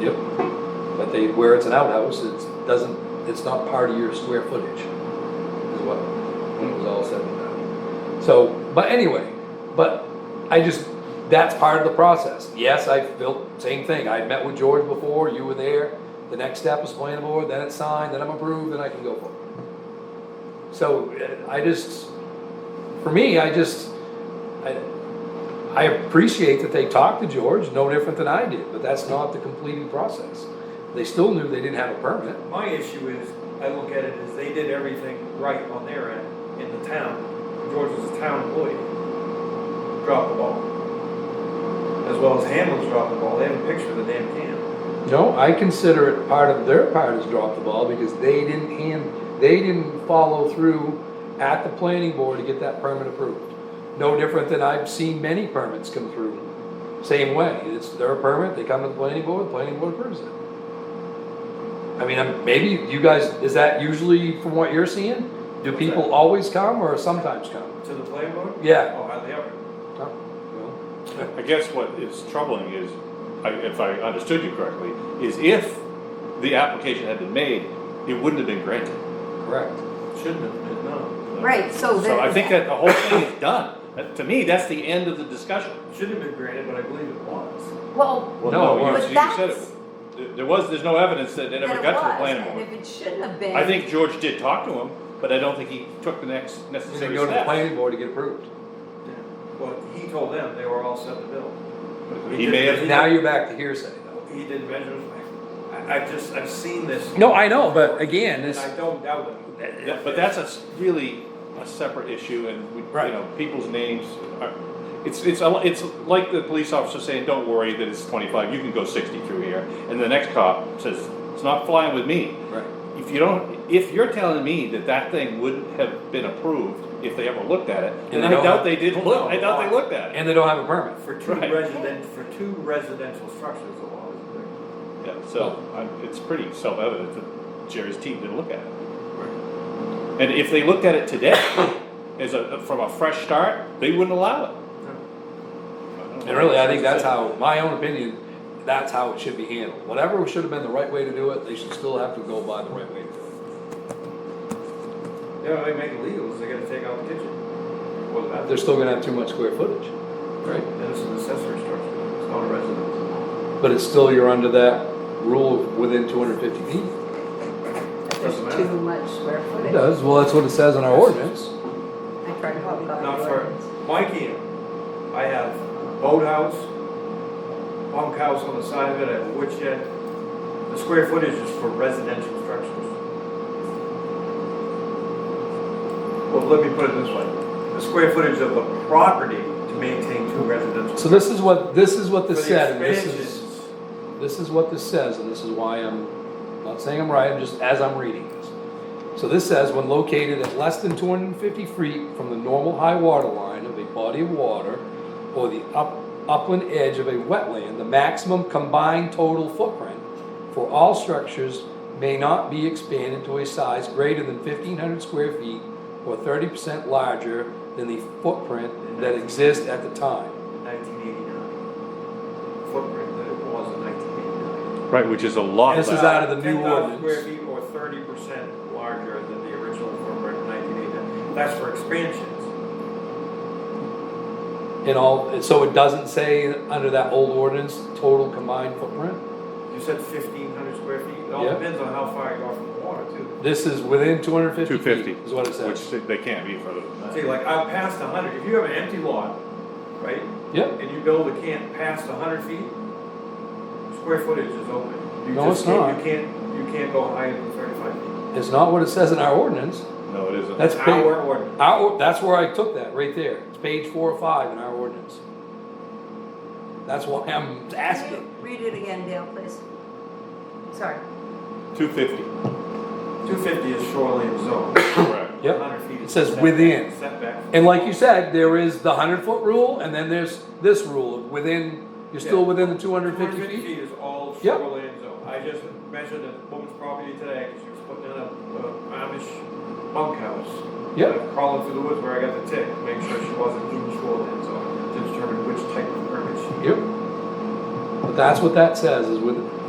Yep. But they, where it's an outhouse, it's, doesn't, it's not part of your square footage, is what, when it was all said and done. So, but anyway, but I just, that's part of the process. Yes, I built, same thing, I met with George before, you were there, the next step is planning board, then it's signed, then I'm approved, then I can go forward. So, eh, I just, for me, I just, I, I appreciate that they talked to George, no different than I did, but that's not the completing process. They still knew they didn't have a permit. My issue is, I look at it as they did everything right on their end in the town. George was a town employee. Dropped the ball. As well as Hamlin's dropped the ball. They have a picture of the damn can. No, I consider it part of, their part is drop the ball because they didn't hand, they didn't follow through at the planning board to get that permit approved. No different than I've seen many permits come through, same way, it's their permit, they come to the planning board, the planning board approves it. I mean, I'm- maybe you guys, is that usually from what you're seeing? Do What's people that? always come or sometimes come? To the planning board? Yeah. Oh, hardly ever. Oh, well, I guess what is troubling is, I- if I understood you correctly, is if the application had been made, it wouldn't have been granted. Correct. Shouldn't have been, no. Right, so So I that, think that the whole thing is done. That- To me, that's the end of the discussion. Should have been granted, but I believe it was. well, Well, No, it you- wasn't. you said But it- that's- there- There was, there's no evidence that it that ever it got to the was, planning and board. if it shouldn't have been. I think George did talk to him, but I don't think he took the next And they necessary go to the step. planning board to get approved. But he told them they were all set to build. He may have, Now you're back to hearsay though. He did measures. I, I've just, I've seen this. No, I know, but again, And this, I don't doubt it. that- but that's a, s- really a separate issue and, we- Right. you know, people's names are, it's, it's, a- it's like the police officer saying, don't worry that it's twenty-five, you can go sixty through here. And the next cop says, it's not flying with me. right, If you don't, if you're telling me that that thing wouldn't have been approved if they ever looked at it, then they I don't doubt have- they didn't look, I doubt they looked at it. and they don't have a permit. For two Right. resident, for two residential structures, the law is there. Yeah, so, I'm- it's pretty self-evident that Jerry's team didn't look at it. And if they looked at it today, as a, from a fresh start, they wouldn't allow it. And really, I think that's how, my own opinion, that's how it should be handled. Whatever should have been the right way to do it, they should still have to go by the right way to do it. The only way to make it legal is they gotta take out the kitchen. Or the They're bathroom. still gonna have too much square footage, right? Then it's an accessory structure, it's not a residence. But it's still, you're under that rule of within two hundred fifty feet. Doesn't There's matter. too much square It footage. does, well, that's what it says in our ordinance. I tried to help God. Not for, my camp, I have boathouse, bunk house on the side of it, I have a wood shed. The square footage is for residential structures. Well, let me put it this way, the square footage of the property to maintain two residential. So this is what, this is what For the this said, and this is, expansions, this is what this says, and this is why I'm not saying I'm right, I'm just as I'm reading this. So this says, when located at less than two hundred and fifty feet from the normal high water line of a body of water or the up, upland edge of a wetland, the maximum combined total footprint for all structures may not be expanded to a size greater than fifteen hundred square feet or thirty percent larger than the footprint that exists at the time. 1989. Footprint that it was in 1989. Right, which is a lot. This is out of the new 10,000 square ordinance. feet or 30% larger than the original footprint in 1989. That's for expansions. And all, and so it doesn't say under that old ordinance, total combined footprint? You said 1,500 square feet. It all Yeah. depends on how far you are from the water, too. This is within two hundred fifty Two fifty. feet, is what it says. Which they can't be further than See, that. like out past 100, if you have an empty lot, right, Yep, and you build a camp past 100 feet, square footage is open. You No, just it's can't- not. You can't, you can't go higher than 35 feet. it's not what it says in our ordinance. No, it isn't. That's page, Our ordinance. our, that's where I took that, right there. It's page four or five in our ordinance. That's why I'm asking. Read it again, Dale, please. Sorry. Two fifty, 250 is shoreline zone. correct. Yep. 100 feet. It is says setback- within. Setback. And like you said, there is the hundred foot rule, and then there's this rule of within, you're still Yeah. within the two hundred fifty 250 feet. feet is all Yep. shoreline zone. I just measured a woman's property today, 'cause she was putting in a a Amish bunkhouse. Yep. I'm Crawling through the woods where I got the tick, to make sure she wasn't in shoreline zone, to determine which type of permit she Yep. But that's what that says, is with,